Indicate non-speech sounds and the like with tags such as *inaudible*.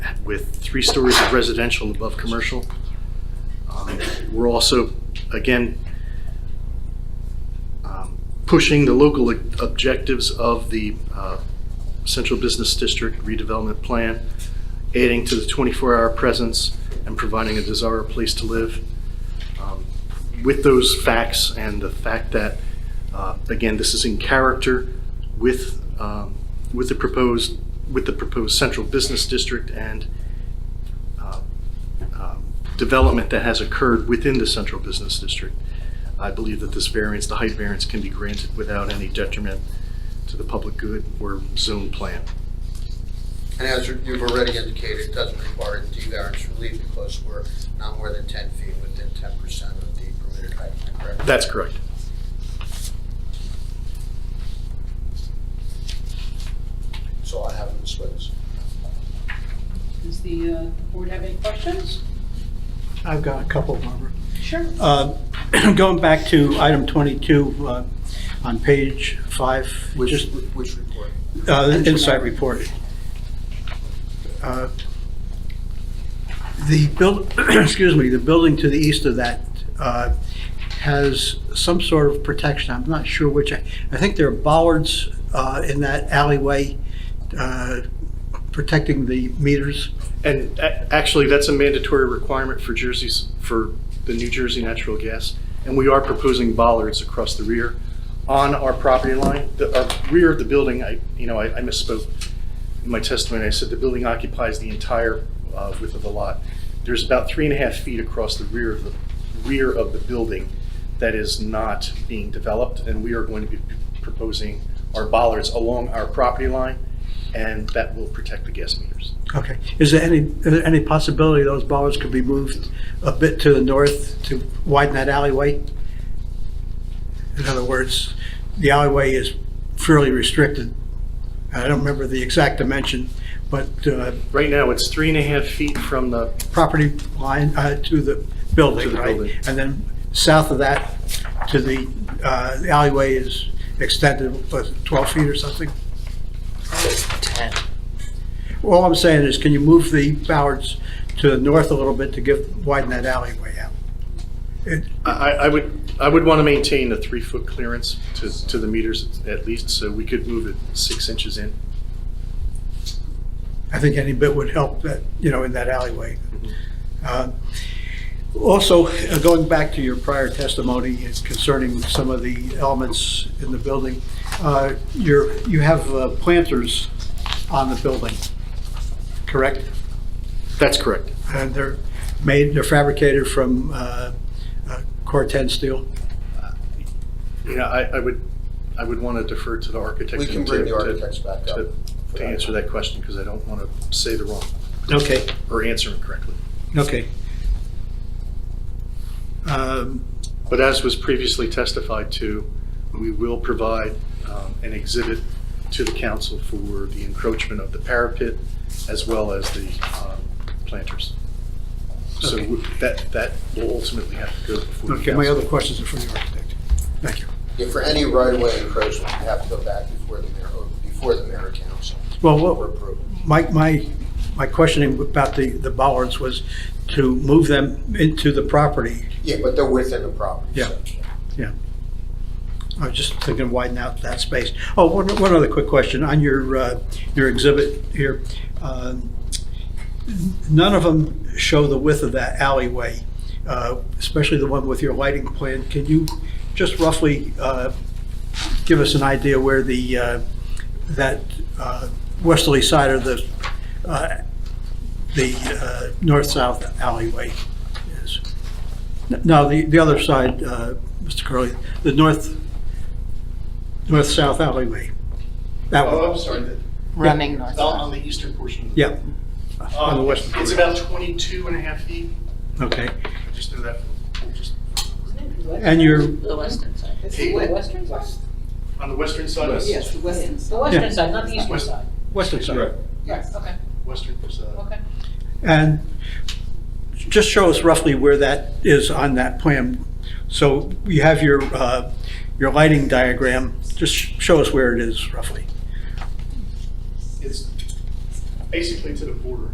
with three stories of residential above commercial. Um, We're also, again, um, pushing the local objectives of the uh, Central Business District redevelopment plan, adding to the 24-hour presence and providing a desirable place to live. Um, With those facts and the fact that, uh, again, this is in character with, um, with the proposed, with the proposed Central Business District and uh, um, development that has occurred within the Central Business District, I believe that this variance, the height variance, can be granted without any detriment to the public good or zone plan. And as you- you've already indicated, it doesn't require a D variance relief because we're not more than 10 feet within 10% of the permitted height, am I correct? That's correct. So I have them as witness. Does the uh, board have any questions? I've got a couple, Barbara. Sure. Uh, *clears throat* Going back to item 22 uh, on page five, Which, just which report? uh, insight report. Uh, The build, *clears throat* excuse me, the building to the east of that uh, has some sort of protection. I'm not sure which. I I think there are bollards uh, in that alleyway uh, protecting the meters. And a- actually, that's a mandatory requirement for Jersey's, for the New Jersey natural gas. And we are proposing bollards across the rear on our property line. The uh, rear of the building, I, you know, I I misspoke in my testimony. I said the building occupies the entire uh, width of the lot. There's about three and a half feet across the rear of the, rear of the building that is not being developed. And we are going to be proposing our bollards along our property line, and that will protect the gas meters. Okay. Is there any, is there any possibility those bollards could be moved a bit to the north to widen that alleyway? In other words, the alleyway is fairly restricted. I don't remember the exact dimension, but uh, Right now, it's three and a half feet from the, property line uh, to the To building, the right? building. And then south of that to the uh, the alleyway is extended, what, 12 feet or something? 10. All I'm saying is, can you move the bollards to the north a little bit to give, widen that alleyway out? It- I, I I would, I would want to maintain a three-foot clearance to, to the meters at least, so we could move it six inches in. I think any bit would help that, you know, in that alleyway. Uh, Also, uh, going back to your prior testimony concerning some of the elements in the building, uh, you're, you have uh, planters on the building, correct? That's correct. And they're made, they're fabricated from uh, uh, Corten steel? You know, I, I would, I would want to defer to the architect. We can to- bring the to- architects back up. To to answer that question, because I don't want to say the wrong, Okay. or answer incorrectly. Okay. Um, But as was previously testified to, we will provide um, an exhibit to the council for the encroachment of the parapet as well as the um, planters. So Okay. that, that will ultimately have to go before the Okay, my other council. questions are for the architect. Thank you. Yeah, for any right-of-way encroachment, you have to go back before the mayor, or before the mayor and council Well, for what, approval. my, my, my questioning about the, the bollards was to move them into the property. Yeah, but they're within the property. Yeah. so- I was just thinking widen out that space. Oh, one, one other quick question. On your, uh, your exhibit here, um, none of them show the width of that alleyway, uh, especially the one with your lighting plan. Can you just roughly uh, give us an idea where the, uh, that uh, westerly side of the, uh, the uh, north-south alleyway is? No, the, the other side, uh, Mr. Curley, the north, north-south alleyway. That Oh, I'm one, sorry, the- Running on north. on the eastern portion. yeah, on the Um, western It's border. about 22 and a half feet, okay. I just know that, from- just And your, The western side. It's the Hey, western side? on the western side. of- Yes, the western The side. western side, not the eastern West- side. western side. Yes, okay, Western side. okay. And just show us roughly where that is on that plan. So you have your, uh, your lighting diagram, just show us where it is roughly. It's basically to the border.